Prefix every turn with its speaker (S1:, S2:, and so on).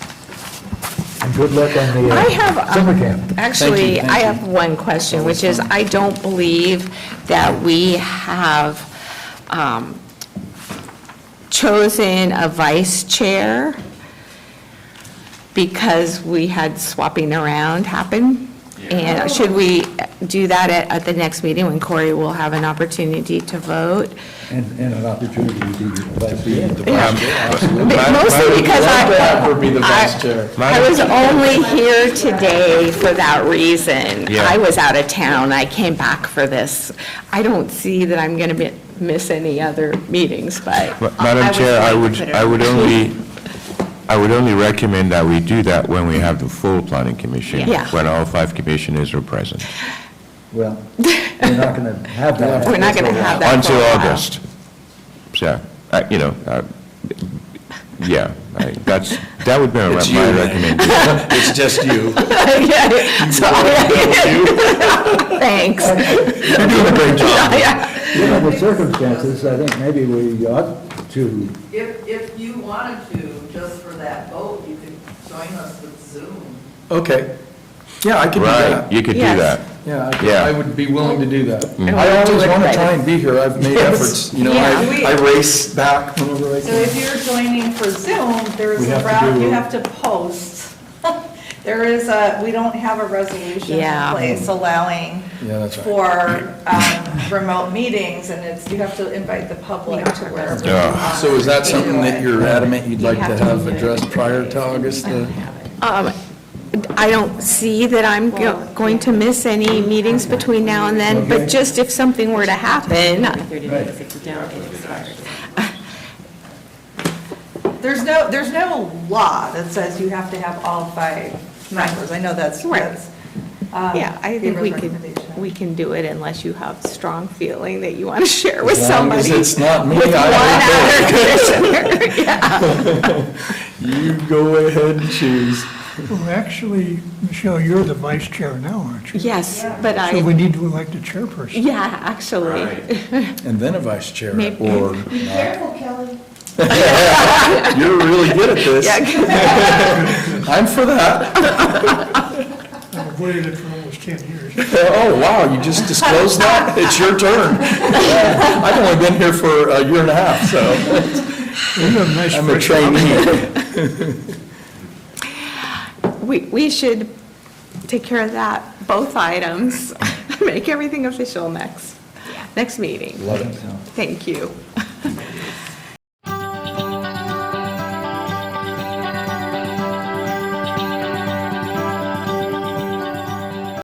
S1: And good luck on the
S2: I
S1: uh,
S2: have,
S1: summer
S2: um,
S1: camp.
S2: actually,
S3: Thank you,
S2: I
S3: thank
S2: have one question, which is, I don't believe that we have um, chosen a vice chair because we had swapping around happen. And should we do that at, at the next meeting when Corey will have an opportunity to vote?
S1: And, and an opportunity to be the Um, vice chair.
S2: But Mostly because I.
S3: would be the vice
S2: I-
S3: chair.
S2: I was only here today for that reason.
S3: Yeah.
S2: I was out of town, I came back for this. I don't see that I'm going to miss any other meetings, but.
S4: Ma- Madam
S2: was
S4: Chair, I
S2: going
S4: would,
S2: to put it
S4: I would
S2: on.
S4: only, I would only recommend that we do that when we have the full planning commission.
S2: Yeah.
S4: When all five commissioners are present,
S1: Well, we're not going to have that.
S2: We're not going to have that. for a
S4: until
S2: while.
S4: August. So, uh, you know, uh, yeah, I- that's, that would be my
S3: It's you,
S4: my
S3: Ray.
S4: recommendation.
S3: It's just you.
S2: Yeah, so I- Thanks.
S4: You're doing a great job.
S2: Yeah.
S1: Given the circumstances, I think maybe we ought to,
S5: If, if you wanted to, just for that vote, you could join us with Zoom.
S3: Okay. Yeah, I could do
S4: Right,
S3: that.
S4: you could do
S2: Yes.
S4: that.
S3: Yeah, I could-
S4: Yeah.
S3: I would be willing to do that.
S4: Mm.
S2: And
S3: I
S2: we'll do
S3: always
S2: it
S3: want to
S2: later.
S3: try and be here. I've made
S2: Yes.
S3: efforts, you know,
S2: Yeah.
S3: I I race back whenever I
S5: So
S3: can.
S5: if you're joining for Zoom, there's
S3: We have to
S5: a route,
S3: do-
S5: you have to post. There is a, we don't have a resolution
S2: Yeah.
S5: in place allowing
S3: Yeah, that's right.
S5: for um, remote meetings, and it's, you have to invite the public to where.
S4: Yeah.
S3: So is that something that you're adamant you'd
S5: You
S3: like to
S5: have to
S3: have
S5: do it.
S3: addressed prior to August? uh,
S2: Um, I don't see that I'm go- going to miss any meetings between now and then, but just if something were to happen,
S5: There's no, there's no law that says you have to have all five members. I know that's,
S2: Right.
S5: that's. um,
S2: Yeah, I think we
S5: Gabriel's
S2: could,
S5: recommendation.
S2: we can do it unless you have strong feeling that you want to share with
S3: As long
S2: somebody.
S3: as it's not me,
S2: With one
S3: I
S2: other commissioner.
S3: You go ahead and choose.
S6: Well, actually, Michelle, you're the vice chair now, aren't you?
S2: Yes, but
S6: So we
S2: I,
S6: need to elect a chairperson.
S2: yeah, actually.
S3: And then a vice chair
S2: Maybe.
S3: or
S7: Careful, Kelly.
S3: You're really good at this. I'm for that.
S6: I've avoided it for almost 10 years.
S3: Oh, wow, you just disclosed that? It's your turn. I've only been here for a year and a half, so
S6: You have a nice
S3: I'm a
S6: fresh
S3: trainee.
S2: We, we should take care of that, both items. Make everything official next, next meeting.
S1: love it.
S2: Thank you.